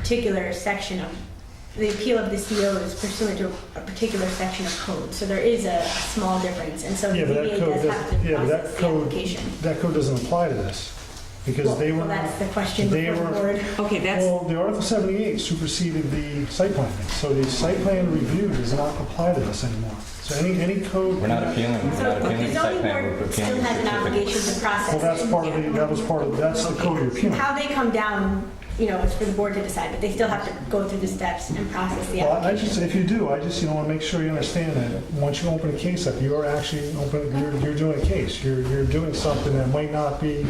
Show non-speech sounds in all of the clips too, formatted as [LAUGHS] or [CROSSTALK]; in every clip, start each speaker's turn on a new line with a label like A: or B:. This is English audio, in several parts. A: particular section of, the appeal of the CO is pursuant to a particular section of code. So there is a small difference, and so
B: Yeah, but
A: DBA
B: that code,
A: does have
B: doesn't-
A: to
B: yeah, but
A: process
B: that
A: the
B: code,
A: application.
B: that code doesn't apply to this, because
A: Well,
B: they
A: well,
B: were,
A: That's the question
B: they
A: before the
B: were-
A: board.
C: Okay, that's,
B: well, the Article 78 superseded the site plan, so the site plan review does not apply to this anymore. So any, any code,
D: We're not appealing, we're not
A: So
D: appealing
A: the
D: the site
A: zoning
D: plan,
A: board
D: we're
A: still
D: appealing the
A: has an
D: certificate.
A: obligation to process.
B: well, that's
A: it.
B: part of the, that was part of, that's the code you're appealing.
A: How they come down, you know, it's for the board to decide, but they still have to go through the steps and process the
B: Well, I just,
A: application.
B: if you do, I just, you know, want to make sure you understand that, once you open a case up, you're actually open, you're, you're doing a case, you're, you're doing something that might not be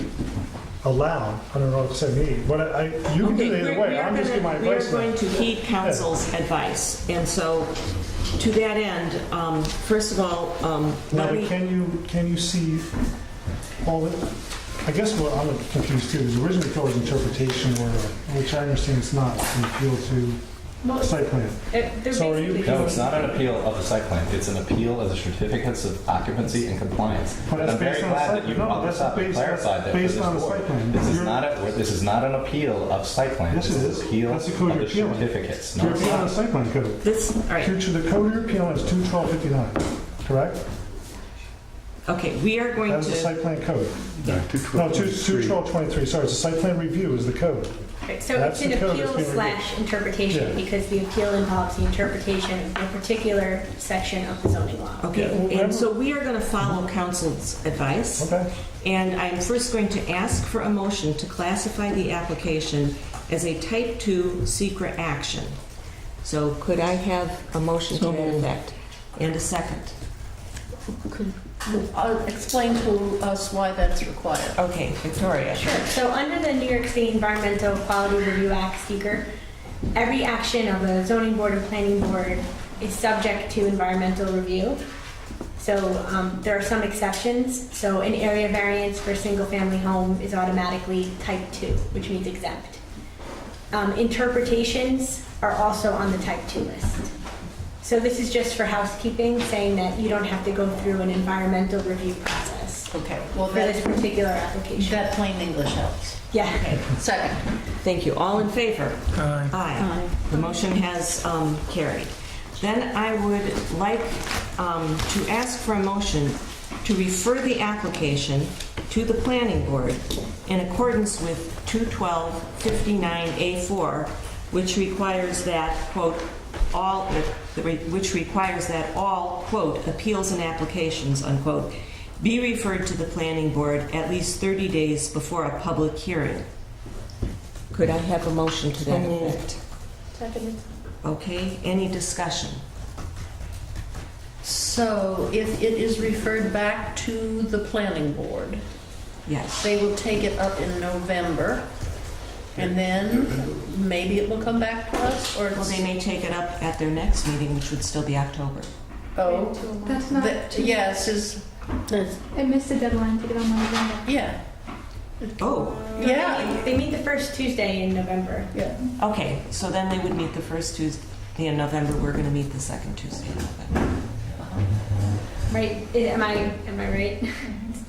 B: allowed under Article 78, but I, you can do it
C: Okay,
B: either
C: we're- we
B: way,
C: are
B: I'm just giving my
C: gonna- we
B: advice.
C: are going to heed counsel's advice, and so, to that end, um, first of all, um,
B: Now,
C: let
B: but
C: me-
B: can you, can you see all the, I guess what I'm confused too, is originally there was interpretation or, which I understand it's not, an appeal to
A: Well,
B: site plan.
A: they're they're
B: So are you-
A: Uh, basically.
D: No, it's not an appeal of the site plan, it's an appeal of the certificates of occupancy and compliance.
B: But
D: And
B: that's
D: I'm very
B: based on the
D: glad
B: site-
D: that you
B: no,
D: brought this
B: that's
D: up and
B: based- that's
D: clarified that for
B: based
D: this
B: on the site plan.
D: board. This is
B: You're-
D: not, a- this is not an appeal of site plan.
B: Yes,
D: This
B: it
D: is
B: is.
D: an appeal of
B: That's the code
D: the
B: you're appealing.
D: certificates. No,
B: You're
D: it's
B: appealing the
D: not.
B: site plan code.
C: this, all right,
B: Future, the code you're appealing is 21259, correct?
C: okay, we are going
B: That is the
C: to,
B: site plan code.
E: No,
B: No, 21223, sorry, it's the site plan review is the code.
A: Right, So
B: That's
A: it's an
B: the code that's
A: appeal
B: being
A: slash interpretation,
B: Yeah.
A: because the appeal involves the interpretation of a particular section of the zoning law.
C: okay,
B: Yeah, well,
C: and so we are going to follow counsel's advice,
B: Okay,
C: and I'm first going to ask for a motion to classify the application as a type 2 secret action. So could I have a motion to that effect? And a second?
F: Could uh, explain to us why that's required.
C: Okay, Victoria.
A: Sure, so under the New York State Environmental Quality Review Act seeker, every action of a zoning board or planning board is subject to environmental review. So um, there are some exceptions, so an area variance for a single-family home is automatically type two, which means exempt. Um, Interpretations are also on the type two list. So this is just for housekeeping, saying that you don't have to go through an environmental review process
C: Okay,
F: Well,
A: for this
F: that,
A: particular application.
F: that plain English helps.
A: Yeah.
F: Second,
C: thank you. All in favor? Aye. The motion has um, carried. Then I would like um, to ask for a motion to refer the application to the planning board in accordance with 212-59A4, which requires that, quote, all, which requires that all, quote, appeals and applications, unquote, be referred to the planning board at least 30 days before a public hearing. Could I have a motion to that effect? Okay, any discussion?
F: so if it is referred back to the planning board,
C: Yes.
F: they will take it up in November, and then maybe it will come back to us, or
C: Well,
F: it's...
C: they may take it up at their next meeting, which would still be October.
F: Oh,
G: That's not.
F: that-
G: too-
F: yes, is,
G: I missed the deadline to get on my agenda.
F: yeah,
C: Oh,
A: They
F: yeah,
A: meet- They meet the first Tuesday in November.
F: yeah.
C: okay, so then they would meet the first Tuesday in November, we're gonna meet the second Tuesday in November.
A: Right? Am I, am I right?
G: [LAUGHS]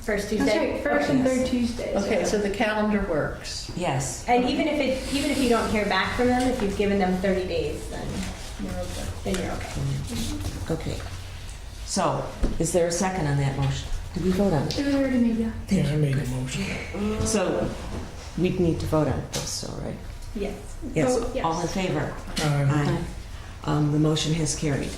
A: First Tuesday?
G: That's right, first and third Tuesdays.
F: Okay, so the calendar works.
C: Yes.
A: And even if it, even if you don't hear back from them, if you've given them 30 days, then,
F: We're okay.
A: then you're okay.
C: Okay. So, is there a second on that motion? Did we vote on it?
G: It was already made, yeah.
H: Yeah, I made a motion.
C: So, we'd need to vote on this, so, right?
A: Yes.
C: Yes,
G: Vote yes.
C: all in favor?
H: Aye.
C: Um, The motion has carried.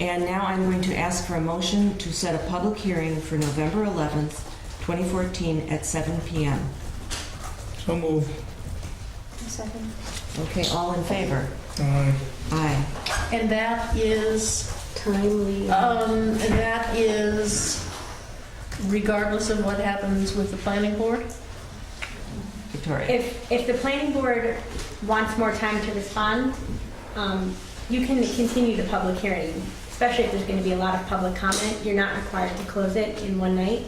C: And now I'm going to ask for a motion to set a public hearing for November 11th, 2014 at 7 PM.
H: So move.
G: Second.
C: Okay, all in favor?
H: Aye.
C: Aye.
F: And that is
A: Timely.
F: Um, that is regardless of what happens with the planning board?
C: Victoria?
A: If, if the planning board wants more time to respond, um, you can continue the public hearing, especially if there's going to be a lot of public comment. You're not required to close it in one night.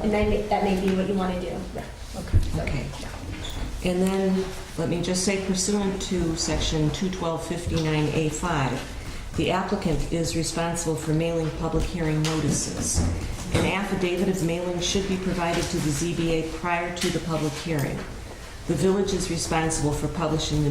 A: And then that may be what you want to do.
C: Okay. And then, let me just say pursuant to Section 21259A5, the applicant is responsible for mailing public hearing notices. An affidavit of mailing should be provided to the ZBA prior to the public hearing. The village is responsible for publishing the